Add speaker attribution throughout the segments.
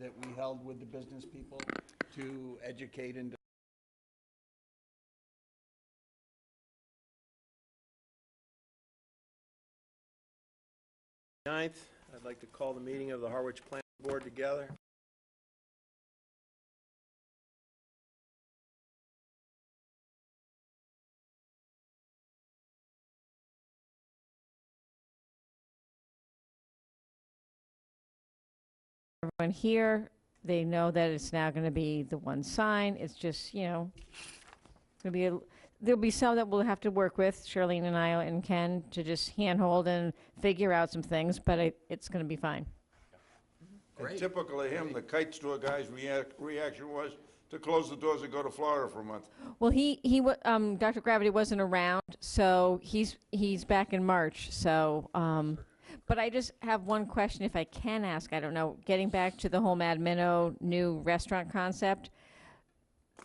Speaker 1: that we held with the business people to educate and
Speaker 2: Ninth, I'd like to call the meeting of the Harwich Planning Board together.
Speaker 3: everyone here, they know that it's now going to be the one sign, it's just, you know, it'll be, a- there'll be some that we'll have to work with, Charlene and I and Ken, to just handhold and figure out some things, but I- it's going to be fine.
Speaker 4: And typical of him, the kite store guy's react, reaction was to close the doors and go to Florida for a month.
Speaker 3: Well, he, he, wa- um, Dr. Gravity wasn't around, so he's, he's back in March, so, um, but I just have one question if I can ask, I don't know, getting back to the whole Mad Minnow new restaurant concept.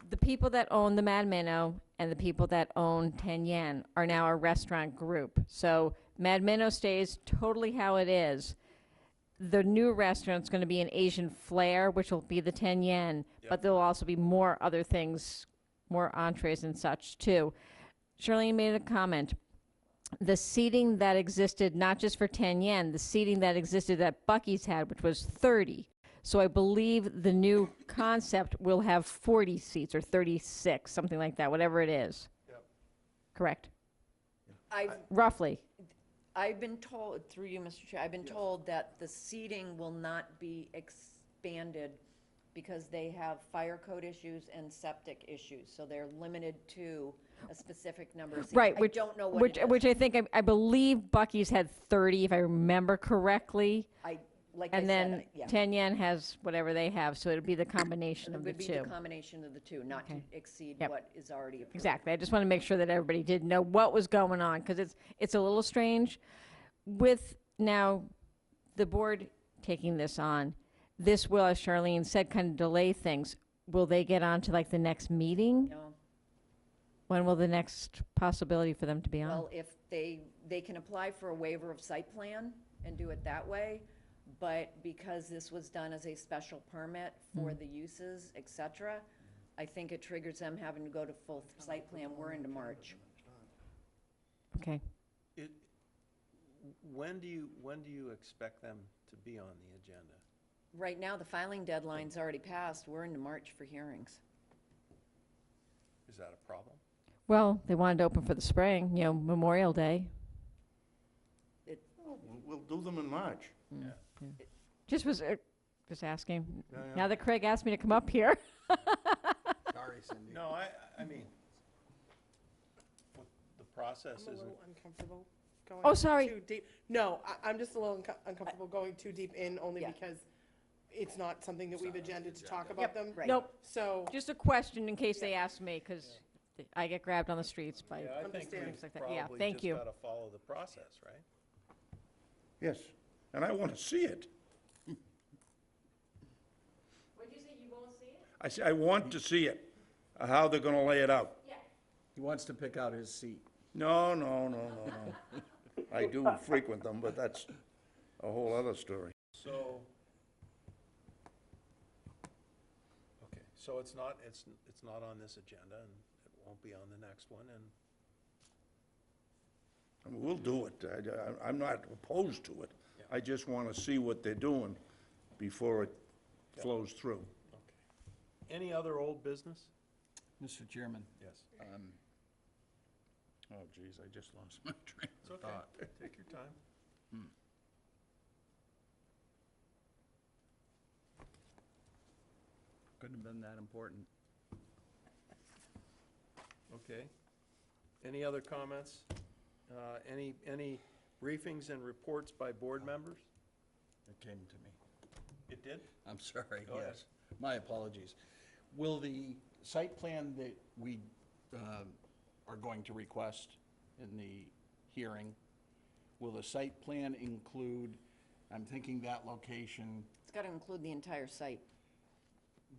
Speaker 3: The people that own the Mad Minnow and the people that own Ten Yen are now a restaurant group. So Mad Minnow stays totally how it is. The new restaurant's gonna be an Asian flair, which will be the Ten Yen, but there'll also be more other things more entrees and such too. Charlene made a comment. The seating that existed, not just for 10 yen, the seating that existed that Bucky's had, which was 30. So I believe the new concept will have 40 seats or 36, something like that, whatever it is. Correct.
Speaker 5: I've,
Speaker 3: Roughly.
Speaker 5: I've been told, through you, Mr. Chair, I've been told that the seating will not be expanded because they have fire code issues and septic issues, so they're limited to a specific number of seats.
Speaker 3: Right. Which,
Speaker 5: I don't know what
Speaker 3: which,
Speaker 5: it is.
Speaker 3: which I think, I, I believe Bucky's had 30, if I remember correctly.
Speaker 5: I, like I
Speaker 3: And
Speaker 5: said,
Speaker 3: then
Speaker 5: I- uh, yeah.
Speaker 3: 10 yen has whatever they have. So it'll be the combination
Speaker 5: It
Speaker 3: of the
Speaker 5: would be
Speaker 3: two.
Speaker 5: the combination of the two, not to exceed
Speaker 3: Yep.
Speaker 5: what is already approved.
Speaker 3: Exactly. I just want to make sure that everybody did know what was going on because it's, it's a little strange. With now the board taking this on, this will, as Charlene said, kind of delay things. Will they get on to like the next meeting?
Speaker 5: No.
Speaker 3: When will the next possibility for them to be on?
Speaker 5: Well, if they, they can apply for a waiver of site plan and do it that way, but because this was done as a special permit for the uses, et cetera, I think it triggers them having to go to full site plan, we're into March.
Speaker 3: Okay.
Speaker 2: It- When do you, when do you expect them to be on the agenda?
Speaker 5: Right now, the filing deadline's already passed, we're into March for hearings.
Speaker 2: Is that a problem?
Speaker 3: Well, they wanted to open for the spring, you know, Memorial Day.
Speaker 5: It,
Speaker 4: We'll- We'll do them in March.
Speaker 3: Just was, uh, just asking. Now that Craig asked me to come up here.
Speaker 1: Sorry, Cindy.
Speaker 2: No, I, I mean, the process
Speaker 6: I'm a
Speaker 2: isn't,
Speaker 6: little uncomfortable going.
Speaker 3: Oh, sorry.
Speaker 6: Too deep. No, I, I'm just a little unco- uncomfortable going too deep in only
Speaker 5: Yeah.
Speaker 6: because it's not something that we've agendaed to talk about them.
Speaker 5: right.
Speaker 3: Nope.
Speaker 6: So,
Speaker 3: Just a question in case they ask me because I get grabbed on the streets by
Speaker 2: yeah, I think
Speaker 6: Understand.
Speaker 3: Things like
Speaker 2: we've
Speaker 3: that. Yeah,
Speaker 2: probably
Speaker 3: thank
Speaker 2: just
Speaker 3: you.
Speaker 2: got to follow the process, right?
Speaker 4: Yes, and I want to see it. What'd you say, you won't see it? I say, I want to see it, uh, how they're gonna lay it out.
Speaker 1: He wants to pick out his seat.
Speaker 4: No, no, no, no, no. I do frequent them, but that's a whole other story.
Speaker 2: So, okay, so it's not, it's, it's not on this agenda, and it won't be on the next one, and,
Speaker 4: I mean, We'll do it. I, am not opposed to it. I just want to see what they're doing before it flows through.
Speaker 2: okay. Any other old business?
Speaker 1: Mr. Chairman,
Speaker 2: Yes.
Speaker 4: Oh, geez, I just lost my train
Speaker 2: It's okay, take your time.
Speaker 1: couldn't have been that important.
Speaker 2: Okay. Any other comments? Uh, Any, any briefings and reports by board members?
Speaker 1: It came to me.
Speaker 2: It did?
Speaker 1: I'm sorry,
Speaker 2: Go ahead.
Speaker 1: yes. My apologies. Will the site plan that we um, are going to request in the hearing, will the site plan include, I'm thinking that location,
Speaker 5: it's gotta include the entire site.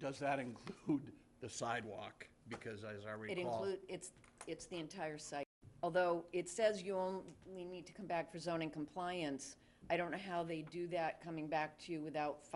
Speaker 1: does that include the sidewalk? Because as I
Speaker 5: It
Speaker 1: recall.
Speaker 5: include, it's, it's the entire site. Although it says you only need to come back for zoning compliance, I don't know how they do that coming back to you without